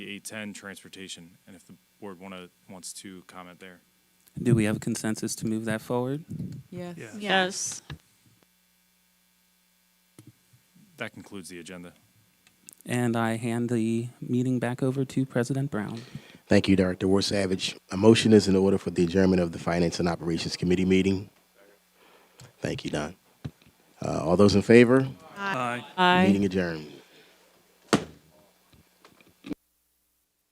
810 transportation, and if the board wanna, wants to comment there. Do we have consensus to move that forward? Yes. Yeah. Yes. That concludes the agenda. And I hand the meeting back over to President Brown. Thank you, Director War Savage. A motion is in order for the adjournment of the Finance and Operations Committee meeting. Thank you, Don. Uh, all those in favor? Aye. Aye. Meeting adjourned.